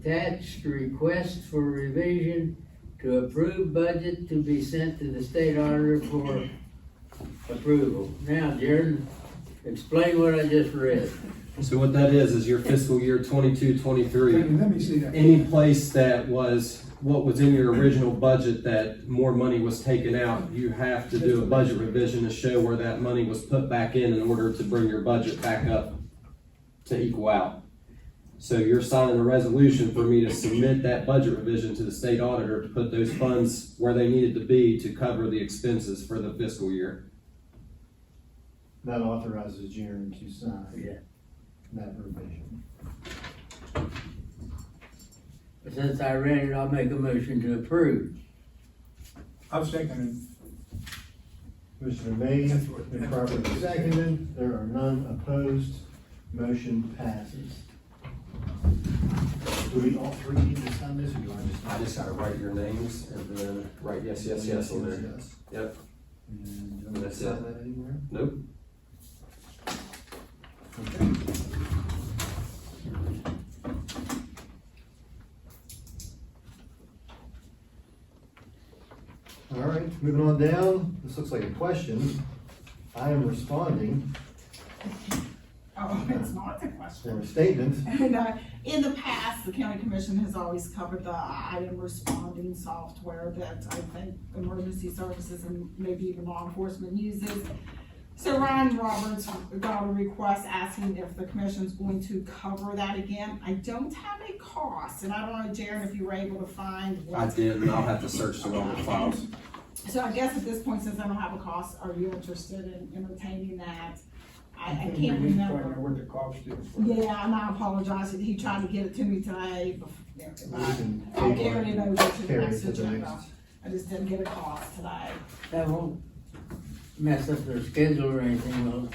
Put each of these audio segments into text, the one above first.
attached request for revision to approved budget to be sent to the state auditor for approval. Now, Jared, explain what I just read. So what that is, is your fiscal year 22, 23. Let me- let me see that. any place that was, what was in your original budget that more money was taken out, you have to do a budget revision to show where that money was put back in in order to bring your budget back up to equal out. So you're signing a resolution for me to submit that budget revision to the state auditor to put those funds where they needed to be to cover the expenses for the fiscal year. That authorizes Jaren to sign Yeah. that provision. Since I read it, I'll make a motion to approve. I was thinking, Commissioner made and properly seconded, there are none opposed, motion passes. Do we all three need to sign this, or do I just? I just gotta write your names and then write yes, yes, yes on there. yes. Yep. And uh, do I need to That's sign it. that anywhere? Nope. Okay. All right, moving on down, this looks like a question. I am responding Oh, it's not the for a question. statement. And, uh, in the past, the county commission has always covered the item responding software that I think emergency services and maybe even law enforcement uses. So Ryan Roberts got a request asking if the commission's going to cover that again. I don't have a cost, and I don't know, Jared, if you were able to find I what. did, and I'll have to search through all the files. So I guess at this point, since I don't have a cost, are you interested in entertaining that? I, I I can't think we need to find remember. out what the cost is. for it. Yeah, and I apologize, he tried to get it to me today, but We can I table carried it over to the Carry it next to the agenda. next. I just didn't get a cost today. That won't mess up their schedule or anything, will it?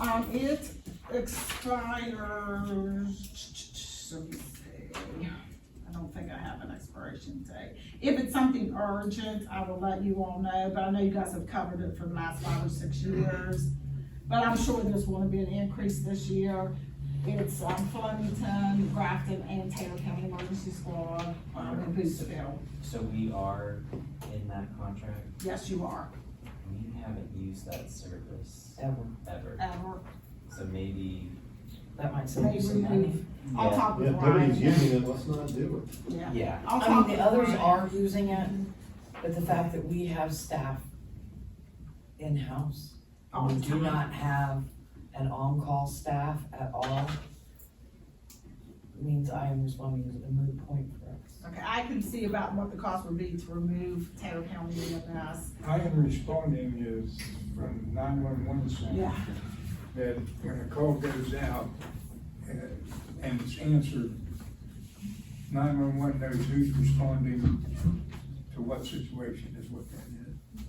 Um, it expires, let me see, I don't think I have an expiration date. If it's something urgent, I will let you all know, but I know you guys have covered it for the last five or six years. But I'm sure there's gonna be an increase this year. It's, um, Flemington, Grafton, and Taylor County Emergency Squad, um, in Boosterville. So we are in that contract, Yes, you are, we haven't used that service ever. ever, ever. so maybe, That might save you Maybe some money. we've, I'll talk Yeah, with if nobody's Ryan. using it, let's not do it. Yeah. yeah, I'll I talk with mean, the others Ryan. are using it, but the fact that we have staff in-house, All we the do time. not have an on-call staff at all, means I am responding as a moot point for us. Okay, I can see about what the cost would be to remove Taylor County EMS. I am responding is from nine-one-one center, Yeah. that when a call goes out uh, and it's answered, nine-one-one knows who's responding to what situation is what that is.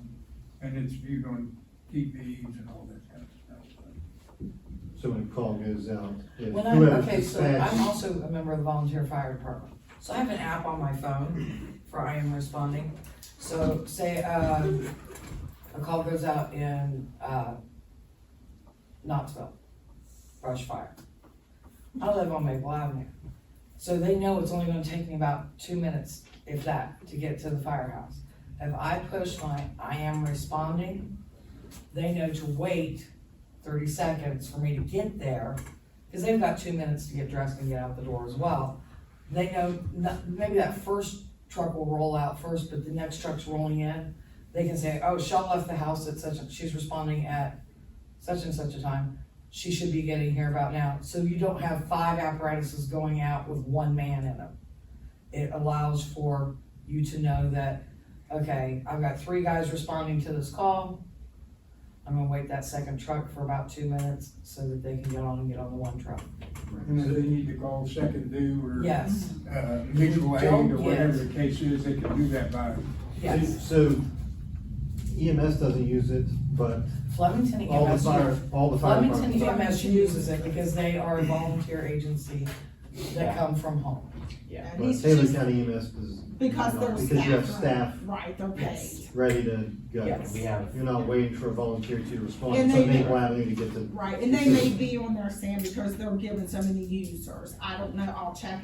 And it's viewed on TVs and all that kind of stuff. So when a call goes out, if When I'm, whoever's okay, so I'm dispatched, also a member of the volunteer fire department, so I have an app on my phone for I am responding. So say, um, a call goes out in, uh, Knoxville, brush fire. I live on Maple Avenue, so they know it's only gonna take me about two minutes, if that, to get to the firehouse. If I push my I am responding, they know to wait thirty seconds for me to get there because they've got two minutes to get dressed and get out the door as well. They know, not- maybe that first truck will roll out first, but the next truck's rolling in. They can say, oh, Shaw left the house at such, a- she's responding at such and such a time. She should be getting here about now. So you don't have five apparatuses going out with one man in them. It allows for you to know that, okay, I've got three guys responding to this call. I'm gonna wait that second truck for about two minutes so that they can get on and get on the one truck. And if they need to call second due or Yes, uh, mutual aid Don't or whatever get- the case is, they can do that by yes. so EMS doesn't use it, but Flemington all the EMS, fire, all the fire Flemington departments. EMS uses it because they are a volunteer agency that come from home. Yeah. And But he's Taylor just- County EMS is. Because they're staff. Because you have right? staff Right, they're paid, ready to go. Yes. We have. You're not waiting for a volunteer to respond, And so I they- think why I need to get the right, and they may be on there, Sam, because they're given so many users, I don't know, I'll check